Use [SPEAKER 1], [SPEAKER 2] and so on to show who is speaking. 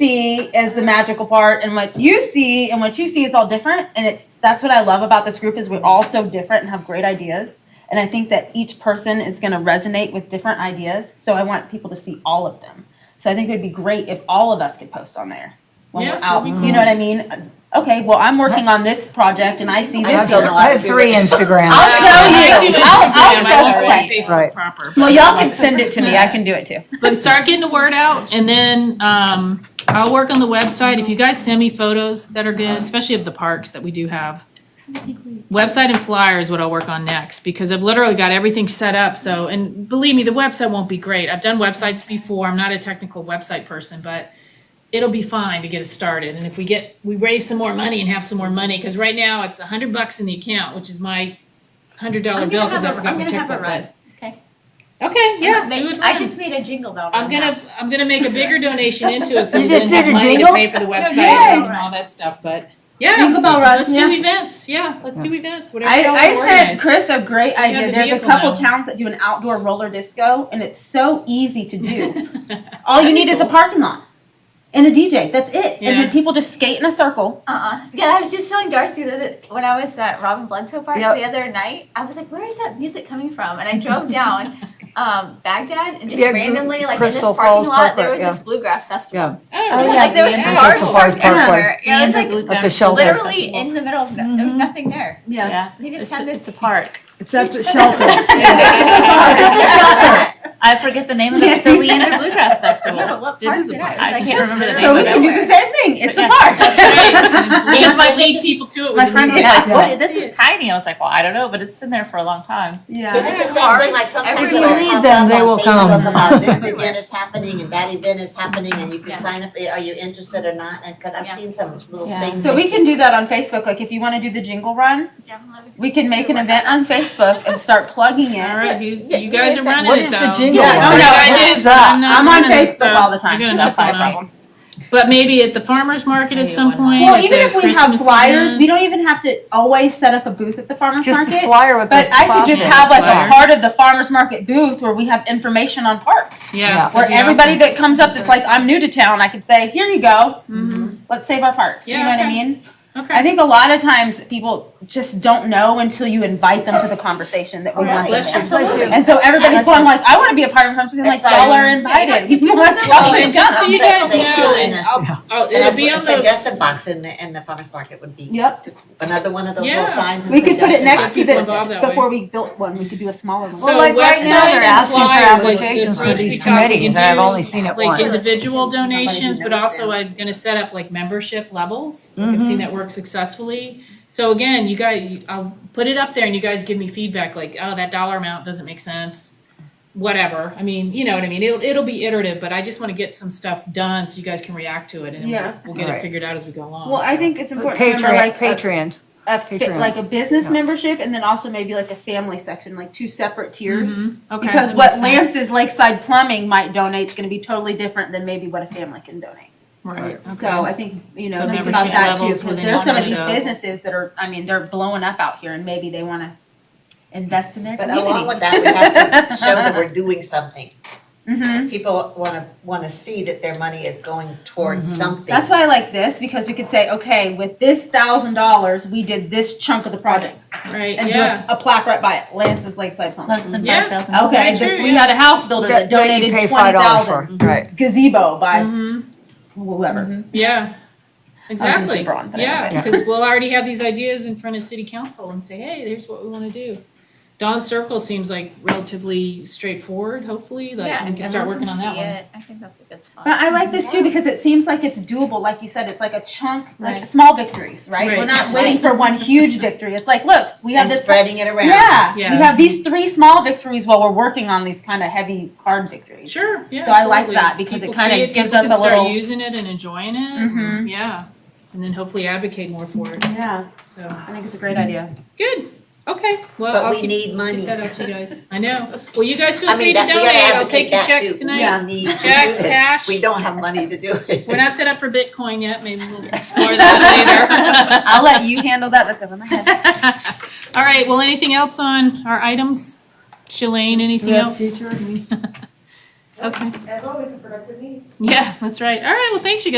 [SPEAKER 1] me is the magical part and what you see and what you see is all different and it's that's what I love about this group is we're all so different and have great ideas. And I think that each person is going to resonate with different ideas, so I want people to see all of them. So I think it would be great if all of us could post on there when
[SPEAKER 2] Yeah,
[SPEAKER 1] we're out.
[SPEAKER 2] that'd be
[SPEAKER 1] You know what I mean? Okay, well, I'm working on this project and I see
[SPEAKER 3] I
[SPEAKER 1] this
[SPEAKER 3] have-
[SPEAKER 1] goes
[SPEAKER 3] I have three
[SPEAKER 1] I'll
[SPEAKER 3] Instagrams.
[SPEAKER 1] show you.
[SPEAKER 2] I do
[SPEAKER 1] I'll, I'll
[SPEAKER 2] Instagram,
[SPEAKER 1] show
[SPEAKER 2] I already
[SPEAKER 1] you.
[SPEAKER 2] Facebook
[SPEAKER 3] Right.
[SPEAKER 2] proper.
[SPEAKER 1] Well, y'all can send it to me. I can do it too.
[SPEAKER 2] But start getting the word out and then, um, I'll work on the website. If you guys send me photos that are good, especially of the parks that we do have. Website and flyer is what I'll work on next because I've literally got everything set up. So, and believe me, the website won't be great. I've done websites before. I'm not a technical website person, but it'll be fine to get us started. And if we get, we raise some more money and have some more money, because right now it's a hundred bucks in the account, which is my hundred dollar
[SPEAKER 4] I'm
[SPEAKER 2] bill
[SPEAKER 4] gonna
[SPEAKER 2] because I
[SPEAKER 4] have a,
[SPEAKER 2] forgot
[SPEAKER 4] I'm
[SPEAKER 2] my
[SPEAKER 4] gonna have a
[SPEAKER 2] checkbook.
[SPEAKER 4] run.
[SPEAKER 2] but-
[SPEAKER 4] Okay.
[SPEAKER 2] Okay, yeah,
[SPEAKER 4] I'm gonna
[SPEAKER 2] do
[SPEAKER 4] make-
[SPEAKER 2] it
[SPEAKER 4] I
[SPEAKER 2] run.
[SPEAKER 4] just made a jingle bell.
[SPEAKER 2] I'm
[SPEAKER 4] run
[SPEAKER 2] gonna, I'm gonna make a bigger donation into it, so
[SPEAKER 3] You
[SPEAKER 2] we
[SPEAKER 3] just
[SPEAKER 2] then have
[SPEAKER 3] did a
[SPEAKER 2] money to
[SPEAKER 3] jingle?
[SPEAKER 2] pay for the website
[SPEAKER 1] yay.
[SPEAKER 2] and all that stuff, but, yeah,
[SPEAKER 1] Jingle bell run,
[SPEAKER 2] let's do
[SPEAKER 1] yeah.
[SPEAKER 2] events, yeah, let's do events, whatever.
[SPEAKER 1] I,
[SPEAKER 2] y'all
[SPEAKER 1] I
[SPEAKER 2] wanna
[SPEAKER 1] sent
[SPEAKER 2] organize.
[SPEAKER 1] Chris a great idea.
[SPEAKER 2] the
[SPEAKER 1] There's a
[SPEAKER 2] vehicle
[SPEAKER 1] couple
[SPEAKER 2] now.
[SPEAKER 1] towns that do an outdoor roller disco, and it's so easy to do. All you need is a parking lot and a DJ. That's it. And
[SPEAKER 2] Yeah.
[SPEAKER 1] then people just skate in a circle.
[SPEAKER 4] Uh-uh. Yeah, I was just telling Darcy that- that when I was at Robin Bledsoe Park
[SPEAKER 3] Yep.
[SPEAKER 4] the other night, I was like, where is that music coming from? And I drove down um, Baghdad and just
[SPEAKER 3] Yeah,
[SPEAKER 4] randomly, like
[SPEAKER 3] Crystal
[SPEAKER 4] in this parking
[SPEAKER 3] Falls
[SPEAKER 4] lot,
[SPEAKER 3] Park,
[SPEAKER 4] there was
[SPEAKER 3] yeah.
[SPEAKER 4] this bluegrass festival.
[SPEAKER 3] Yeah,
[SPEAKER 2] Oh,
[SPEAKER 1] yeah,
[SPEAKER 4] Like there was
[SPEAKER 1] the
[SPEAKER 2] yeah.
[SPEAKER 4] cars
[SPEAKER 3] Crystal Falls
[SPEAKER 4] parked
[SPEAKER 3] Park,
[SPEAKER 4] everywhere. Yeah, it was like
[SPEAKER 3] at the shelter.
[SPEAKER 4] literally in the middle of no- there was nothing there.
[SPEAKER 2] Yeah.
[SPEAKER 4] They just
[SPEAKER 5] It's,
[SPEAKER 4] had this
[SPEAKER 5] it's a park.
[SPEAKER 6] It's at the shelter.
[SPEAKER 4] at
[SPEAKER 5] I forget the name of the, the Leander Bluegrass Festival.
[SPEAKER 4] Yeah, but what
[SPEAKER 2] It
[SPEAKER 4] park
[SPEAKER 2] is a
[SPEAKER 4] did I?
[SPEAKER 2] park.
[SPEAKER 4] It was
[SPEAKER 5] I
[SPEAKER 4] like
[SPEAKER 5] can't remember the
[SPEAKER 4] literally
[SPEAKER 5] name
[SPEAKER 1] So
[SPEAKER 5] of
[SPEAKER 1] we
[SPEAKER 4] in
[SPEAKER 1] can do
[SPEAKER 4] the middle
[SPEAKER 1] the
[SPEAKER 4] of
[SPEAKER 1] same thing. It's a
[SPEAKER 5] Yeah.
[SPEAKER 1] park.
[SPEAKER 2] That's right. We
[SPEAKER 5] Yeah,
[SPEAKER 2] have
[SPEAKER 5] my
[SPEAKER 2] to lead people to it with
[SPEAKER 5] My
[SPEAKER 2] the
[SPEAKER 5] friend was
[SPEAKER 2] music.
[SPEAKER 5] like,
[SPEAKER 6] Yeah.
[SPEAKER 5] what, this is tiny. I was like, well, I don't know, but it's been there for a long time.
[SPEAKER 1] Yeah.
[SPEAKER 7] This is the same thing, like sometimes
[SPEAKER 4] If
[SPEAKER 6] you
[SPEAKER 7] it'll
[SPEAKER 6] need
[SPEAKER 7] pop
[SPEAKER 6] them,
[SPEAKER 7] up
[SPEAKER 6] they
[SPEAKER 7] on
[SPEAKER 6] will
[SPEAKER 7] Facebook
[SPEAKER 6] come.
[SPEAKER 7] About this event is happening and that event is happening and you
[SPEAKER 4] Yeah.
[SPEAKER 7] can sign up, are you interested or not? And, cause I've
[SPEAKER 4] Yeah.
[SPEAKER 7] seen some little
[SPEAKER 5] Yeah.
[SPEAKER 7] things.
[SPEAKER 1] So
[SPEAKER 7] that-
[SPEAKER 1] we can do that on Facebook. Like if you want to do the jingle run,
[SPEAKER 4] Yeah, I'm loving-
[SPEAKER 1] we can make an event on Facebook and start plugging
[SPEAKER 2] All
[SPEAKER 1] it.
[SPEAKER 2] right, who's, you guys are running
[SPEAKER 3] What
[SPEAKER 2] it
[SPEAKER 3] is the
[SPEAKER 2] though.
[SPEAKER 3] jingle?
[SPEAKER 1] Yeah, no,
[SPEAKER 2] What
[SPEAKER 1] no,
[SPEAKER 2] I did,
[SPEAKER 3] what's up?
[SPEAKER 2] I'm not
[SPEAKER 1] I'm on
[SPEAKER 2] running it,
[SPEAKER 1] Facebook
[SPEAKER 2] so
[SPEAKER 1] all the time.
[SPEAKER 2] you're
[SPEAKER 1] It's
[SPEAKER 2] gonna
[SPEAKER 1] just a
[SPEAKER 2] have
[SPEAKER 1] fun
[SPEAKER 2] fun.
[SPEAKER 1] problem.
[SPEAKER 2] But maybe at the farmer's market at
[SPEAKER 5] Hey,
[SPEAKER 2] some
[SPEAKER 5] why not?
[SPEAKER 2] point.
[SPEAKER 1] Well,
[SPEAKER 2] at
[SPEAKER 1] even
[SPEAKER 2] the
[SPEAKER 1] if we have
[SPEAKER 2] Christmas
[SPEAKER 1] flyers,
[SPEAKER 2] event.
[SPEAKER 1] we don't even have to always set up a booth at the farmer's
[SPEAKER 3] Just the
[SPEAKER 1] market.
[SPEAKER 3] flyer with those
[SPEAKER 1] But I could just
[SPEAKER 3] plastic.
[SPEAKER 1] have like
[SPEAKER 2] Flyers.
[SPEAKER 1] a heart of the farmer's market booth where we have information on parks.
[SPEAKER 2] Yeah.
[SPEAKER 1] Where
[SPEAKER 2] that'd be
[SPEAKER 1] everybody
[SPEAKER 2] awesome.
[SPEAKER 1] that comes up that's like, I'm new to town, I could say, here you go, let's save our parks. You
[SPEAKER 2] Yeah,
[SPEAKER 1] know what I
[SPEAKER 2] okay.
[SPEAKER 1] mean? I
[SPEAKER 2] Okay,
[SPEAKER 1] think a lot of times people just don't know until you invite them to the conversation that we
[SPEAKER 2] Yeah,
[SPEAKER 1] want.
[SPEAKER 2] bless
[SPEAKER 1] them
[SPEAKER 2] you.
[SPEAKER 1] in. And so everybody's going like, I want to be a part of the conversation. I'm like, y'all are invited. We want
[SPEAKER 2] well,
[SPEAKER 1] y'all
[SPEAKER 2] and
[SPEAKER 1] to
[SPEAKER 2] just so
[SPEAKER 1] come.
[SPEAKER 2] you guys
[SPEAKER 7] They
[SPEAKER 2] know,
[SPEAKER 7] feel
[SPEAKER 2] and
[SPEAKER 7] this.
[SPEAKER 2] I'll, I'll,
[SPEAKER 7] And
[SPEAKER 2] it'll
[SPEAKER 7] that's
[SPEAKER 2] Oh, be
[SPEAKER 7] what a
[SPEAKER 2] on the
[SPEAKER 7] suggestion box in the, in the farmer's market would be
[SPEAKER 1] Yep.
[SPEAKER 7] just another one of those little
[SPEAKER 2] Yeah.
[SPEAKER 7] signs and
[SPEAKER 1] We could put it
[SPEAKER 7] suggestion
[SPEAKER 1] next to
[SPEAKER 7] boxes.
[SPEAKER 2] people
[SPEAKER 1] the,
[SPEAKER 2] involved that way.
[SPEAKER 1] before we built one, we could do a smaller
[SPEAKER 2] So
[SPEAKER 1] one.
[SPEAKER 3] Well, like right now,
[SPEAKER 2] website
[SPEAKER 3] they're
[SPEAKER 2] and
[SPEAKER 3] asking for
[SPEAKER 2] flyers, like,
[SPEAKER 3] applications for
[SPEAKER 2] first
[SPEAKER 3] these
[SPEAKER 2] week off, we
[SPEAKER 3] committees,
[SPEAKER 2] can
[SPEAKER 3] and I've
[SPEAKER 2] do,
[SPEAKER 3] only seen it
[SPEAKER 2] Like
[SPEAKER 3] once.
[SPEAKER 2] individual
[SPEAKER 7] Somebody who
[SPEAKER 2] donations, but
[SPEAKER 7] knows
[SPEAKER 2] also
[SPEAKER 7] them.
[SPEAKER 2] I'm gonna set up like membership levels. Like, I've
[SPEAKER 1] Mm-hmm.
[SPEAKER 2] seen that work successfully. So again, you guys, I'll put it up there and you guys give me feedback like, oh, that dollar amount doesn't make sense. Whatever. I mean, you know what I mean? It'll, it'll be iterative, but I just wanna get some stuff done so you guys can react to it and
[SPEAKER 1] Yeah.
[SPEAKER 2] we'll- we'll get it
[SPEAKER 3] Right.
[SPEAKER 2] figured out as we go along.
[SPEAKER 1] Well, I
[SPEAKER 2] so.
[SPEAKER 1] think it's important to remember
[SPEAKER 3] Patreon,
[SPEAKER 1] like a-
[SPEAKER 3] Patreons.
[SPEAKER 1] a fit-
[SPEAKER 3] Patreon.
[SPEAKER 1] like a business
[SPEAKER 3] Yeah.
[SPEAKER 1] membership and then also maybe like a family section, like two separate tiers.
[SPEAKER 2] Mm-hmm. Okay,
[SPEAKER 1] Because
[SPEAKER 2] that
[SPEAKER 1] what
[SPEAKER 2] makes sense.
[SPEAKER 1] Lance's Lakeside Plumbing might donate is going to be totally different than maybe what a family can donate.
[SPEAKER 2] Right,
[SPEAKER 1] So
[SPEAKER 2] okay.
[SPEAKER 1] I think you know
[SPEAKER 2] So
[SPEAKER 1] think about
[SPEAKER 2] membership
[SPEAKER 1] that too
[SPEAKER 2] levels
[SPEAKER 1] because
[SPEAKER 2] within
[SPEAKER 1] there's some of
[SPEAKER 2] membership
[SPEAKER 1] these
[SPEAKER 2] levels.
[SPEAKER 1] businesses that are I mean they're blowing up out here and maybe they want to invest in their
[SPEAKER 7] But
[SPEAKER 1] community.
[SPEAKER 7] along with that, we have to show that we're doing something.
[SPEAKER 1] Mhm.
[SPEAKER 7] People wanna, wanna see that their money is going towards something.
[SPEAKER 1] Mm-hmm. That's why I like this because we could say, okay, with this thousand dollars, we did this chunk of the project,
[SPEAKER 2] Right,
[SPEAKER 1] and
[SPEAKER 2] yeah.
[SPEAKER 1] do a, a plaque right by it, Lance's Lakeside Plumbing.
[SPEAKER 5] Less than
[SPEAKER 2] Yeah.
[SPEAKER 5] five thousand.
[SPEAKER 1] Okay,
[SPEAKER 2] Sure,
[SPEAKER 1] the- we
[SPEAKER 2] yeah.
[SPEAKER 1] had a house builder that,
[SPEAKER 3] That- that you
[SPEAKER 1] donated
[SPEAKER 3] pay
[SPEAKER 1] twenty
[SPEAKER 3] $5
[SPEAKER 1] thousand
[SPEAKER 3] for, Right.
[SPEAKER 1] gazebo by whoever.
[SPEAKER 2] Mm-hmm. Yeah,
[SPEAKER 1] gonna say
[SPEAKER 2] exactly.
[SPEAKER 1] Braun, but I
[SPEAKER 2] Yeah,
[SPEAKER 1] didn't say
[SPEAKER 2] because we'll already have these ideas in front of city council and say, hey, there's what we want to do. Dawn Circle seems like relatively straightforward, hopefully,
[SPEAKER 4] Yeah,
[SPEAKER 2] like we can start working
[SPEAKER 4] everyone
[SPEAKER 2] on that
[SPEAKER 4] see
[SPEAKER 2] one.
[SPEAKER 4] it. I think that's a good spot.
[SPEAKER 1] But I like this too because it seems like it's doable. Like you said, it's like a chunk, like
[SPEAKER 2] Right.
[SPEAKER 1] small victories, right? We're
[SPEAKER 2] Right.
[SPEAKER 1] not waiting for one huge victory. It's like, look, we have
[SPEAKER 7] And
[SPEAKER 1] this.
[SPEAKER 7] spreading it around.
[SPEAKER 1] Yeah, we
[SPEAKER 2] Yeah.
[SPEAKER 1] have these three small victories while we're working on these kind of heavy, hard victories.
[SPEAKER 2] Sure, yeah.
[SPEAKER 1] So I like
[SPEAKER 2] absolutely.
[SPEAKER 1] that because it
[SPEAKER 2] People
[SPEAKER 1] kinda
[SPEAKER 2] see
[SPEAKER 1] gives
[SPEAKER 2] people
[SPEAKER 1] us
[SPEAKER 2] can
[SPEAKER 1] a little-
[SPEAKER 2] Start using it and enjoying it,
[SPEAKER 7] Mm-hmm.
[SPEAKER 1] Mhm.
[SPEAKER 2] and- yeah, and then hopefully advocate more for it,
[SPEAKER 1] Yeah,
[SPEAKER 2] so,
[SPEAKER 1] I think it's a great idea.
[SPEAKER 2] good, okay, well,
[SPEAKER 7] But
[SPEAKER 2] I'll
[SPEAKER 7] we
[SPEAKER 2] keep,
[SPEAKER 7] need money.
[SPEAKER 2] keep that out to you guys, I know. Well, you guys feel
[SPEAKER 7] I
[SPEAKER 2] free
[SPEAKER 7] mean,
[SPEAKER 2] to
[SPEAKER 7] that, we
[SPEAKER 2] donate,
[SPEAKER 7] gotta
[SPEAKER 2] I'll take your
[SPEAKER 7] advocate that
[SPEAKER 2] checks
[SPEAKER 7] too.
[SPEAKER 2] tonight.
[SPEAKER 1] Yeah.
[SPEAKER 7] We need to do
[SPEAKER 2] Checks,
[SPEAKER 7] this.
[SPEAKER 2] cash.
[SPEAKER 7] We don't have money to do it.
[SPEAKER 2] We're not set up for Bitcoin yet, maybe we'll explore that
[SPEAKER 1] I'll let you handle that. That's over my head.
[SPEAKER 2] later. All right, well, anything else on our items? Shalane, anything else? Okay,
[SPEAKER 8] As always, a productive meeting.
[SPEAKER 2] yeah, that's right. All right, well, thanks, you guys.